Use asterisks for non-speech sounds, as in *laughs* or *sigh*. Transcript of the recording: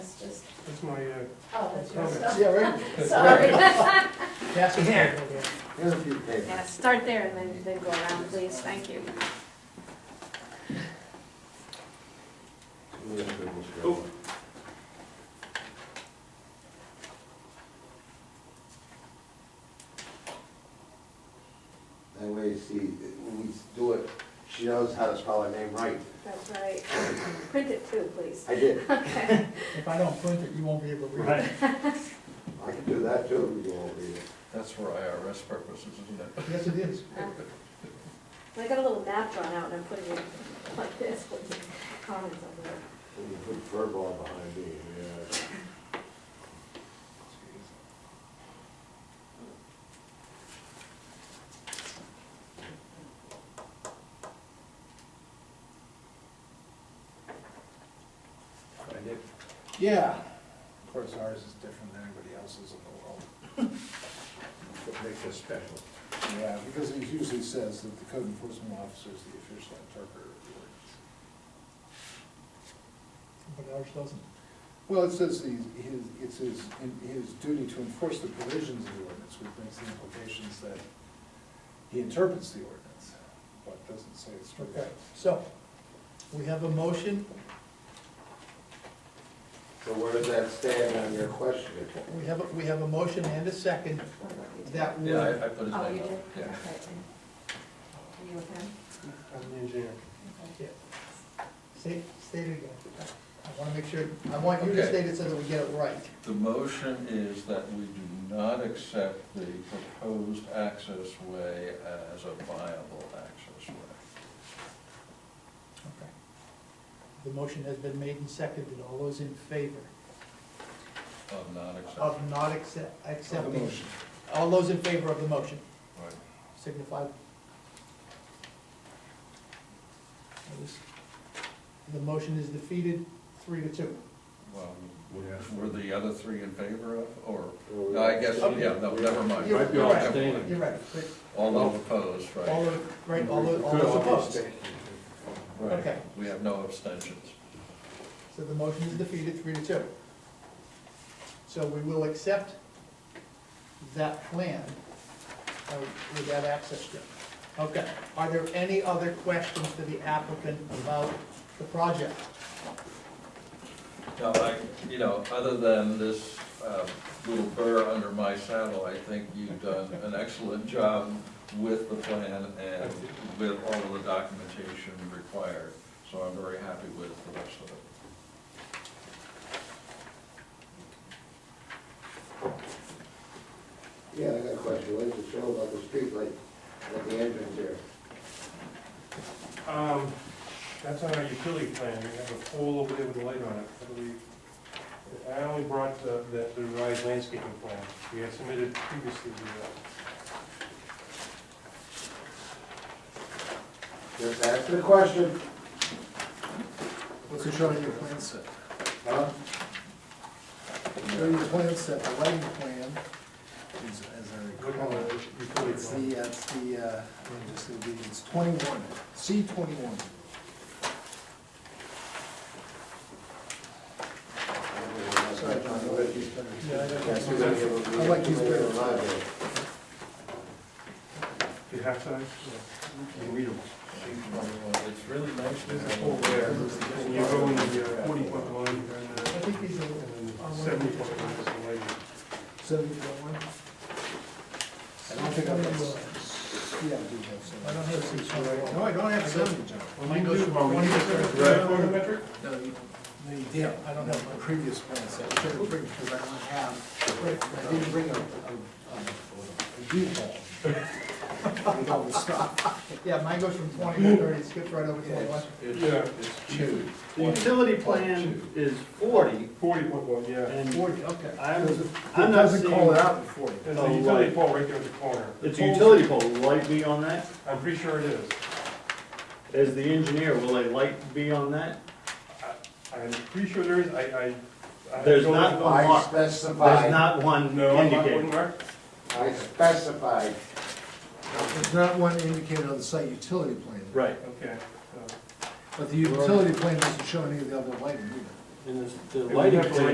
that's my, uh, Oh, that's your Comments. stuff. *laughs* Yeah, right? Sorry. Pass it down. Here's a few papers. Yeah, start there and then, then go around, please, thank you. We have to go straight. Oh. That way, see, when we do it, she knows how to spell her name right. That's right. Print it too, please. I did, Okay. If I don't print it, you won't be able to read Right. it. I can do that too, if you want to read it. That's for IRS purposes, isn't it? Yes, it is. *laughs* I got a little map drawn out and I'm putting it like this with the comments on there. When you put verbal behind me, yeah. Find it. Yeah. Of course, ours is different than anybody else's in the world. What makes us special? Yeah, because it usually says that the code enforcement officer is the official interpreter of the ordinance. But ours doesn't. Well, it says he's, his, it's his, in- his duty to enforce the provisions of the ordinance, which brings the implications that he interprets the ordinance, but doesn't say it's. Okay, so, we have a motion, So where does that stand on your question? we have, a- we have a motion and a second that Yeah, would, I, I put his name Oh, on you did? it, Okay. yeah. Are you okay? I'm the engineer. yeah. Say, state it again. I wanna make sure, I want you to Okay. state it so that we get it right. The motion is that we do not accept the proposed access way as a viable access way. Okay. The motion has been made and seconded, all those in favor of not accepting. of not accept, The accepting, motion. all those in favor of the motion, Right. signify. Notice, The motion is defeated, three to two. Well, Yeah. Were the other three in favor of, or, Or- no, I guess, yeah, no, never mind. You're- Might be you're all right. abstaining. You're right, but All those opposed, All right? those, right, all those, all Could those all be opposed. stated. Right. okay. We have no abstentions. So the motion is defeated, three to two. So we will accept that plan uh, with that access strip. Okay, are there any other questions for the applicant about the project? Now, I, you know, other than this um, little burr under my saddle, I think you've done an excellent job with the plan and with all of the documentation required, so I'm very happy with the rest of it. Yeah, I got a question, what does it show about the streetlight at the entrance there? Um, that's on our utility plan, we have a pole over there with a light on it, I believe. I only brought the, the the revised landscaping plan, we had submitted previously uh, to that. Just answer the question, What's it showing in your plan set? huh? Showing your plan set, the lighting plan, is, as I What recall. kind it, of utility It's plan? the, uh, it's the, uh, I mean, just it'll be- it's twenty-one, C twenty-one. Sorry, John, I'll let you finish. I like these better. Do you have size? You can read them. It's really nice to There's a have. pole there, and you go in the uh, forty foot line, and I then think these are, the seventy foot line is the lighting. Seventy-one? I don't think I have, yeah, I do have some. I don't have six, right? No, I don't have seventy, John. Mine goes from Well, we do, 20% uh, to the- photometric? No, you, no, you did. I don't have my previous plan set. I should have bring, because I don't have, I didn't bring a, a, a view *laughs* ball. With all the stuff. Yeah, mine goes from twenty to thirty, it skips right over twenty-one. It's, Yeah. it's it's two. The utility plan is forty, Forty foot one, yeah. and Forty, okay. I'm, Doesn't- I'm not Doesn't call it seeing, out in forty. There's Oh, a utility right. pole right there at the corner. The it's a pole's- utility pole, will light be on that? I'm pretty sure it is. As the engineer, will a light be on that? I'm pretty sure there is, I, I. I There's don't not know. one I mark, there's specified, not one No, I'm not one indicated. mark. I specified, There's not one indicated on the site utility plan. Right, Okay. so- But the utility plan doesn't show any of the other lighting either. and the, the would lighting have to plan